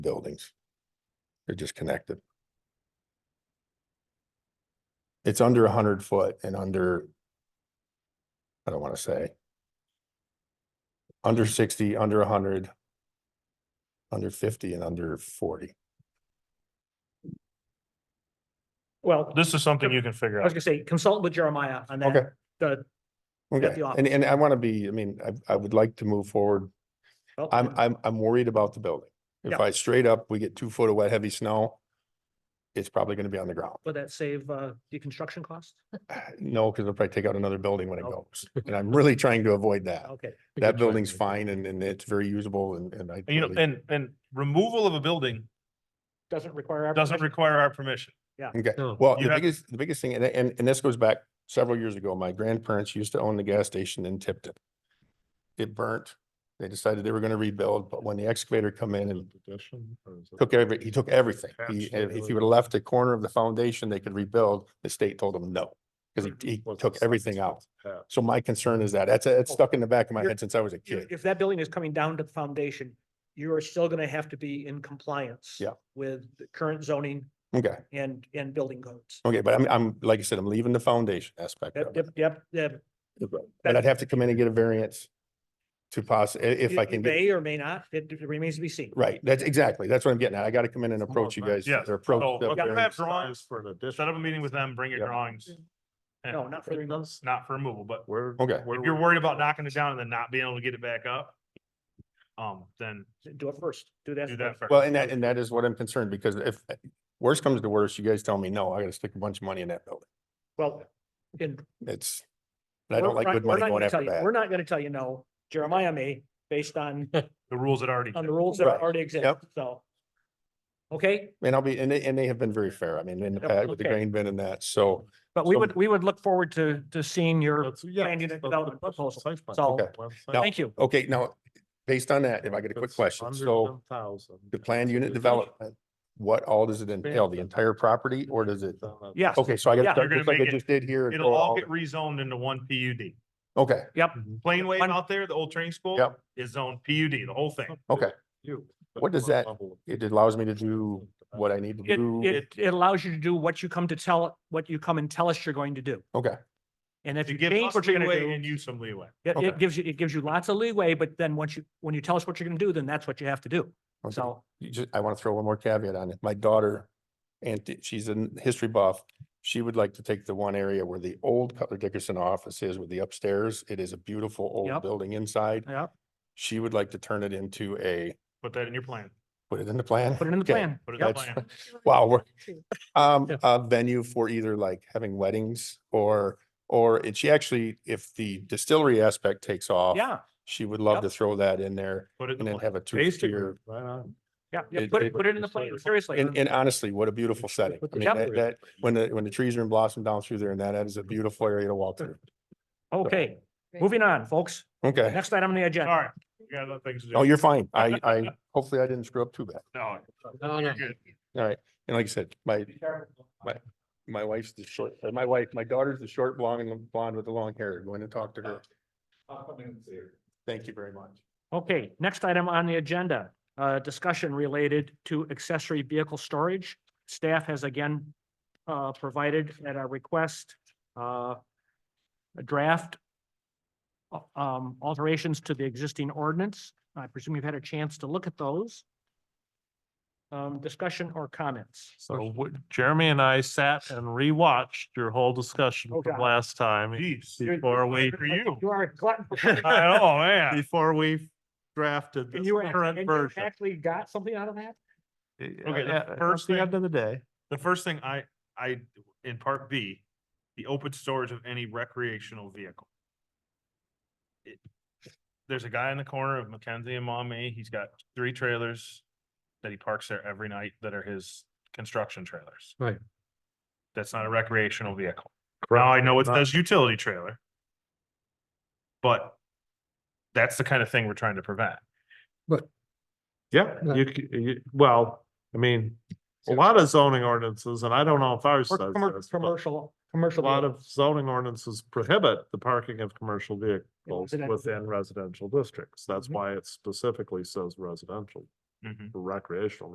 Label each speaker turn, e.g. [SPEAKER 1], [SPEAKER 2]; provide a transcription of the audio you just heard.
[SPEAKER 1] buildings. They're just connected. It's under a hundred foot and under. I don't wanna say. Under sixty, under a hundred. Under fifty and under forty.
[SPEAKER 2] Well,
[SPEAKER 3] This is something you can figure
[SPEAKER 2] I was
[SPEAKER 3] out.
[SPEAKER 2] gonna say consult with Jeremiah on
[SPEAKER 1] Okay.
[SPEAKER 2] that. The,
[SPEAKER 1] Okay,
[SPEAKER 2] the
[SPEAKER 1] and, and I wanna be, I mean, I, I would like to move forward.
[SPEAKER 2] well,
[SPEAKER 1] I'm, I'm, I'm worried about the building. If
[SPEAKER 2] Yeah.
[SPEAKER 1] I straight up, we get two foot of wet, heavy snow. It's probably gonna be on the ground.
[SPEAKER 2] Would that save, uh, the construction cost?
[SPEAKER 1] No, because they'll probably take out another building when it goes. And I'm really trying to avoid that.
[SPEAKER 2] Okay,
[SPEAKER 1] That building's fine and, and it's very usable and, and I.
[SPEAKER 3] And, You know,
[SPEAKER 1] totally-
[SPEAKER 3] and, and removal of a building
[SPEAKER 2] doesn't require. our
[SPEAKER 3] doesn't
[SPEAKER 2] permission?
[SPEAKER 3] require our permission.
[SPEAKER 1] Okay,
[SPEAKER 4] No.
[SPEAKER 1] well,
[SPEAKER 3] You
[SPEAKER 1] the
[SPEAKER 3] have-
[SPEAKER 1] biggest, the biggest thing, and, and, and this goes back several years ago, my grandparents used to own the gas station in Tipton. It burnt. They decided they were gonna rebuild, but when the excavator come in and took every, he took everything. He,
[SPEAKER 4] Patch
[SPEAKER 1] and
[SPEAKER 4] it
[SPEAKER 1] if
[SPEAKER 4] or-
[SPEAKER 1] he would have left a corner of the foundation they could rebuild, the state told him no. Because he, he took everything out. So my concern is that, that's, it's stuck in the back of my
[SPEAKER 2] You're-
[SPEAKER 1] head since I was a
[SPEAKER 2] If,
[SPEAKER 1] kid.
[SPEAKER 2] if that building is coming down to the foundation, you are still gonna have to be in compliance.
[SPEAKER 1] Yeah.
[SPEAKER 2] With the current zoning
[SPEAKER 1] Okay,
[SPEAKER 2] and, and building codes.
[SPEAKER 1] okay, but I'm, I'm, like I said, I'm leaving the foundation aspect
[SPEAKER 2] Yep,
[SPEAKER 1] of it.
[SPEAKER 2] yep, yep, yep.
[SPEAKER 1] But I'd have to come in and get a variance to poss, i- if
[SPEAKER 2] You-
[SPEAKER 1] I
[SPEAKER 2] you
[SPEAKER 1] can get.
[SPEAKER 2] May or may not, it it remains to be seen.
[SPEAKER 1] Right, that's exactly, that's what I'm getting at. I gotta come in and
[SPEAKER 4] It's more
[SPEAKER 1] approach you
[SPEAKER 4] about-
[SPEAKER 1] guys.
[SPEAKER 3] Yes,
[SPEAKER 1] or approach
[SPEAKER 3] so
[SPEAKER 1] the
[SPEAKER 3] look at
[SPEAKER 1] variance.
[SPEAKER 3] that drawing.
[SPEAKER 4] For an
[SPEAKER 3] Set up a
[SPEAKER 4] addition.
[SPEAKER 3] meeting with them, bring your
[SPEAKER 1] Yep.
[SPEAKER 3] drawings. and-
[SPEAKER 2] No, not for the removal.
[SPEAKER 3] Not for removal, but
[SPEAKER 4] Where?
[SPEAKER 1] Okay.
[SPEAKER 4] where
[SPEAKER 3] if you're
[SPEAKER 4] we-
[SPEAKER 3] worried about knocking it down and then not being able to get it back up, um, then
[SPEAKER 2] Do it first. Do that.
[SPEAKER 3] do that
[SPEAKER 2] first.
[SPEAKER 3] first.
[SPEAKER 1] Well, and that, and that is what I'm concerned because if worse comes to worse, you guys tell me, no, I gotta stick a bunch of money in that building.
[SPEAKER 2] Well, in
[SPEAKER 1] It's, and I don't
[SPEAKER 2] We're
[SPEAKER 1] like
[SPEAKER 2] not-
[SPEAKER 1] good
[SPEAKER 2] we're
[SPEAKER 1] money
[SPEAKER 2] not
[SPEAKER 1] going
[SPEAKER 2] gonna tell
[SPEAKER 1] after
[SPEAKER 2] you- We're
[SPEAKER 1] that.
[SPEAKER 2] not gonna tell you no. Jeremiah may, based on,
[SPEAKER 3] The rules that already.
[SPEAKER 2] on the rules that
[SPEAKER 1] Right.
[SPEAKER 2] already exist,
[SPEAKER 1] Yep.
[SPEAKER 2] so. Okay,
[SPEAKER 1] And I'll be, and they, and they have been very fair. I mean, in the
[SPEAKER 2] Yep,
[SPEAKER 1] past with the
[SPEAKER 2] okay.
[SPEAKER 1] grain bin and that, so.
[SPEAKER 2] but we
[SPEAKER 1] So-
[SPEAKER 2] would, we would look forward to, to seeing your,
[SPEAKER 4] That's- yeah,
[SPEAKER 2] planned
[SPEAKER 4] that's-
[SPEAKER 2] unit
[SPEAKER 4] that's the
[SPEAKER 2] development
[SPEAKER 4] question,
[SPEAKER 2] proposal.
[SPEAKER 4] site plan.
[SPEAKER 2] So-
[SPEAKER 1] Okay.
[SPEAKER 4] Website.
[SPEAKER 1] Now,
[SPEAKER 2] thank you.
[SPEAKER 1] Okay, now, based on that, if I get a quick
[SPEAKER 4] It's
[SPEAKER 1] question,
[SPEAKER 4] under
[SPEAKER 1] so
[SPEAKER 4] 10,000.
[SPEAKER 1] the planned unit
[SPEAKER 4] It's
[SPEAKER 1] development, what all does it entail? The entire property or does it?
[SPEAKER 4] on that-
[SPEAKER 2] Yes,
[SPEAKER 1] Okay, so I
[SPEAKER 2] Yeah.
[SPEAKER 1] gotta,
[SPEAKER 3] You're
[SPEAKER 1] start just
[SPEAKER 3] gonna
[SPEAKER 1] like I
[SPEAKER 3] make it-
[SPEAKER 1] just did here. and
[SPEAKER 3] It'll
[SPEAKER 1] throw
[SPEAKER 3] all
[SPEAKER 1] all
[SPEAKER 3] get rezoned into one PUD.
[SPEAKER 1] the- Okay,
[SPEAKER 2] yep,
[SPEAKER 3] Plain wave
[SPEAKER 2] One-
[SPEAKER 3] out there, the old training school.
[SPEAKER 1] Yep.
[SPEAKER 3] Is zoned PUD, the whole thing.
[SPEAKER 1] okay.
[SPEAKER 4] You.
[SPEAKER 1] What does that- It allows me to do what I need to
[SPEAKER 2] it,
[SPEAKER 1] do.
[SPEAKER 2] it, it allows you to do what you come to tell, what you come and tell us you're going to do.
[SPEAKER 1] Okay,
[SPEAKER 2] And if
[SPEAKER 3] You
[SPEAKER 2] you
[SPEAKER 3] give
[SPEAKER 2] change
[SPEAKER 3] us
[SPEAKER 2] what you're gonna
[SPEAKER 3] leeway and
[SPEAKER 2] do,
[SPEAKER 3] you some leeway.
[SPEAKER 2] it,
[SPEAKER 1] okay.
[SPEAKER 2] it gives you, it gives you lots of leeway, but then once you, when you tell us what you're gonna do, then that's what you have to do.
[SPEAKER 1] okay.
[SPEAKER 2] So,
[SPEAKER 1] you just, I want to throw one more caveat on it. My daughter, and she's a n- history buff. She would like to take the one area where the old Cutler Dickerson office is with the upstairs. It is a beautiful old
[SPEAKER 2] Yep.
[SPEAKER 1] building inside.
[SPEAKER 2] yeah,
[SPEAKER 1] She would like to turn it into a,
[SPEAKER 3] Put that in your plan.
[SPEAKER 1] put it in the plan?
[SPEAKER 2] put it in the
[SPEAKER 1] Okay.
[SPEAKER 2] plan.
[SPEAKER 3] Put it in the
[SPEAKER 2] Yep.
[SPEAKER 1] That's-
[SPEAKER 3] plan.
[SPEAKER 1] Wow, we're- Um,
[SPEAKER 2] Yeah.
[SPEAKER 1] a venue for either like having weddings or, or and she actually, if the distillery aspect takes off.
[SPEAKER 2] Yeah,
[SPEAKER 1] She would love
[SPEAKER 2] Yep.
[SPEAKER 1] to throw that in there
[SPEAKER 3] Put it
[SPEAKER 1] and
[SPEAKER 3] in the
[SPEAKER 1] then
[SPEAKER 3] plan.
[SPEAKER 1] have a two
[SPEAKER 4] Basically,
[SPEAKER 1] tier.
[SPEAKER 4] right on.
[SPEAKER 2] yeah, yeah,
[SPEAKER 1] It-
[SPEAKER 2] put
[SPEAKER 1] it-
[SPEAKER 2] it, put it in the plan, seriously.
[SPEAKER 1] And, and honestly, what a beautiful setting.
[SPEAKER 4] Put
[SPEAKER 1] I
[SPEAKER 4] the
[SPEAKER 1] mean, that,
[SPEAKER 4] decorative
[SPEAKER 1] that, when the, when the trees are in blossom down through there and that, that is a beautiful area to walk through.
[SPEAKER 2] Okay, moving on, folks.
[SPEAKER 1] Okay.
[SPEAKER 2] Next item on the
[SPEAKER 3] All
[SPEAKER 2] agenda.
[SPEAKER 3] right. You got other things to do.
[SPEAKER 1] No, Oh, you're fine. I, I, hopefully I didn't screw up too bad.
[SPEAKER 3] No.
[SPEAKER 4] No, no.
[SPEAKER 3] you're good.
[SPEAKER 1] All right. And like I said, my, my wife's the short, uh, my wife, my daughter's the short blonde and the blonde with the long hair. Go in and talk to her. Thank you very much.
[SPEAKER 2] Okay, next item on the agenda, uh, discussion related to accessory vehicle storage. Staff has again, uh, provided at our request, uh, a draft uh, um, alterations to the existing ordinance. I presume you've had a chance to look at those. Um, discussion or comments?
[SPEAKER 4] So what- Jeremy and I sat and rewatched your whole discussion
[SPEAKER 2] Oh,
[SPEAKER 4] from
[SPEAKER 2] God.
[SPEAKER 4] last time
[SPEAKER 3] Jeez.
[SPEAKER 4] before we,
[SPEAKER 3] For you.
[SPEAKER 2] You are a glutton. for
[SPEAKER 3] I know, man.
[SPEAKER 4] before we drafted
[SPEAKER 2] And
[SPEAKER 4] this
[SPEAKER 2] you act-
[SPEAKER 4] current
[SPEAKER 2] and you
[SPEAKER 4] version.
[SPEAKER 2] actually got something out of that?
[SPEAKER 3] Okay, the
[SPEAKER 4] At
[SPEAKER 3] first
[SPEAKER 4] the
[SPEAKER 3] thing-
[SPEAKER 4] end of the day.
[SPEAKER 3] The first thing I, I, in part B, the open storage of any recreational vehicle. It- There's a guy in the corner of Mackenzie and Mommy. He's got three trailers that he parks there every night that are his construction trailers.
[SPEAKER 4] Right.
[SPEAKER 3] That's not a recreational vehicle. Now, I know it
[SPEAKER 4] Not-
[SPEAKER 3] says utility trailer. But that's the kind of thing we're trying to prevent.
[SPEAKER 4] Yeah, you, c- you, well, I mean, a lot of zoning ordinances, and I don't know if ours
[SPEAKER 2] Or
[SPEAKER 4] says
[SPEAKER 2] commer-
[SPEAKER 4] this, but
[SPEAKER 2] commercial,
[SPEAKER 4] a
[SPEAKER 2] commercial.
[SPEAKER 4] lot
[SPEAKER 2] vehicle.
[SPEAKER 4] of zoning ordinances prohibit the parking of commercial vehicles
[SPEAKER 2] residential.
[SPEAKER 4] within residential districts. That's
[SPEAKER 2] Mhm.
[SPEAKER 4] why it specifically says residential,
[SPEAKER 3] Mhm.
[SPEAKER 4] recreational